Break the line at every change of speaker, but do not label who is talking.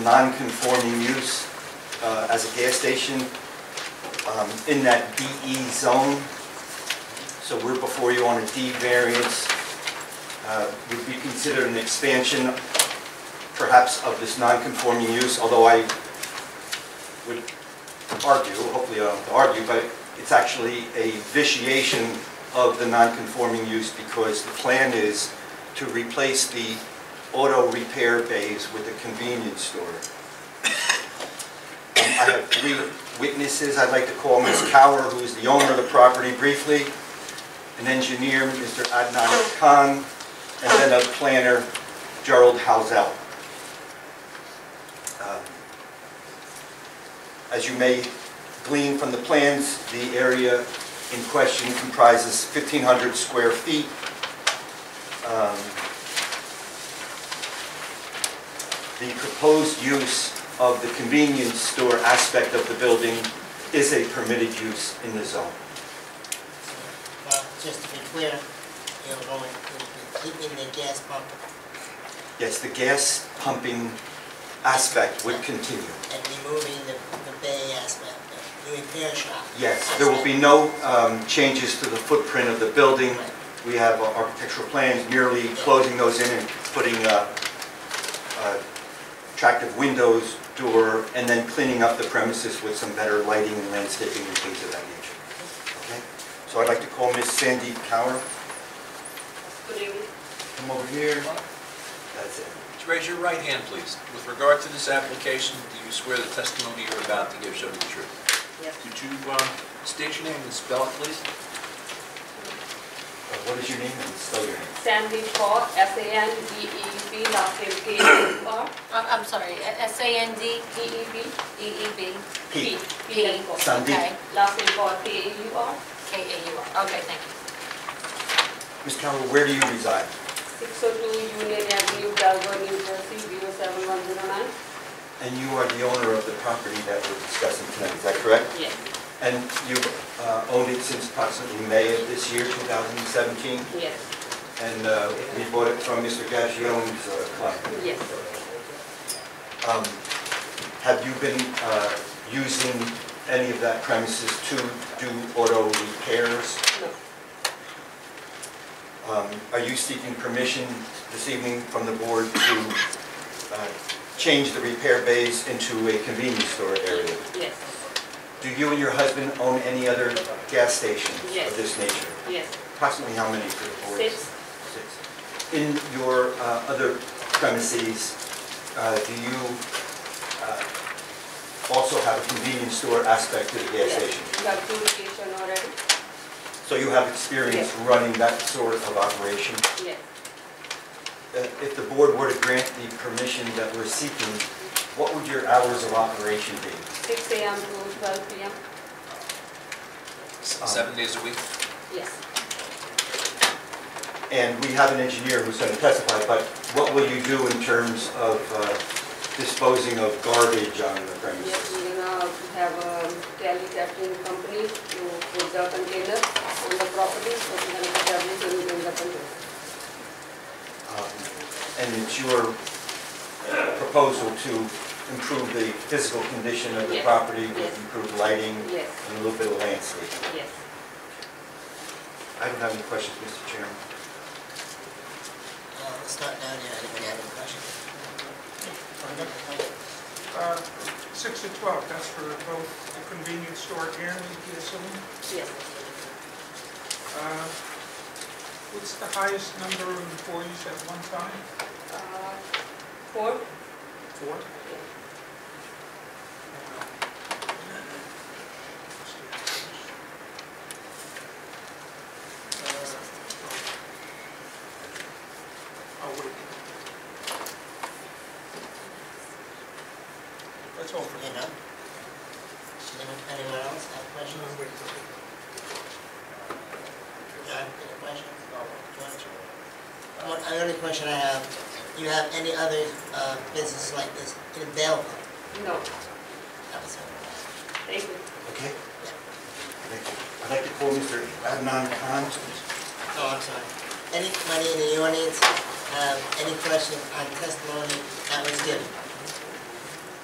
non-conforming use uh, as a gas station um, in that DE zone. So we're before you on a D variance. Uh, Would be considered an expansion perhaps of this non-conforming use, although I would argue, hopefully I don't have to argue, but it's actually a vitiation of the non-conforming use because the plan is to replace the auto repair bays with a convenience store. Um, I have three witnesses, I'd like to call Ms. Cower, who is the owner of the property briefly, an engineer, Mr. Adnan Khan, and then a planner, Gerald Hausel. Um, as you may glean from the plans, the area in question comprises 1,500 square feet. Um, The proposed use of the convenience store aspect of the building is a permitted use in the zone.
Well, just to be clear, you're going to be keeping the gas pump
Yes, the gas pumping aspect would continue.
and removing the, the bay aspect, the repair shop.
Yes, there will be no um, changes to the footprint of the building. We have our architectural plans merely closing those in and putting uh, uh, attractive windows, door, and then cleaning up the premises with some better lighting and landscaping and things of that nature. Okay? So I'd like to call Ms. Sandy Cower.
Good evening.
Come over here. That's it.
Would you Raise your right hand, please. With regard to this application, do you swear the testimony you're about to give shall be the truth?
Yes.
Could you um, state your name and spell it, please?
Uh, What is your name and spell your name?
Sandy Kaur, S-A-N-D-E-E-B, E last name K-A-U-R,
I'm I'm sorry, S-A-N-D,
D-E-B,
E-E-B,
Pete.
E P and Kaur.
Sandeep.
okay,
Last name Kaur, K-A-U-R,
K-A-U-R, okay, thank you.
Ms. Cower, where do you reside?
602 Union Avenue, Delaware, New Jersey, 07109.
And you are the owner of the property that we're discussing tonight, is that correct?
Yes,
And you've uh, owned it since approximately May of this year, 2017,
yes,
and uh, we bought it from Mr. Gagione's uh, client.
yes.
Um, Have you been uh, using any of that premises to do auto repairs?
No.
Um, Are you seeking permission this evening from the board to uh, change the repair bays into a convenience store area?
Yes,
Do you and your husband own any other gas stations
Yes.
of this nature?
yes.
Approximately how many for the board?
Six.
Six. In your uh, other premises, uh, do you uh, also have a convenience store aspect to the gas
yes.
station?
You have two location already?
So you have experience running that sort of operation?
Yes,
Uh, If the board were to grant the permission that we're seeking, what would your hours of operation be?
6 AM to 12 PM?
S- Seven days a week?
Yes.
And we have an engineer who's going to testify, but what will you do in terms of uh, disposing of garbage on the
Yes,
premises?
we're gonna have a tally capturing company to put the container on the property, so we're gonna put everything in the container.
Um, And it's your proposal to improve the physical condition of the
Yes,
property
yes.
with improved lighting
Yes,
and a little bit of landscaping?
yes.
I don't have any questions, Mr. Chairman.
Uh, let's start down there, anybody have any questions?
Uh, Six to 12, that's for both the convenience store and the gasoline.
Yes.
Uh, What's the highest number of employees at one time?
Uh, Four?
Four. Uh, I'll wait. That's all for
You know? Should anyone else have questions?
now.
John, Uh, any questions? One, the only question I have, do you have any other, uh, business like this in Belleville?
No,
That was all.
thank you.
Okay? Thank you. I'd like to call Mr. Adnan Khan.
Oh, I'm sorry. Um, Anybody in the audience have any questions on testimony that was given?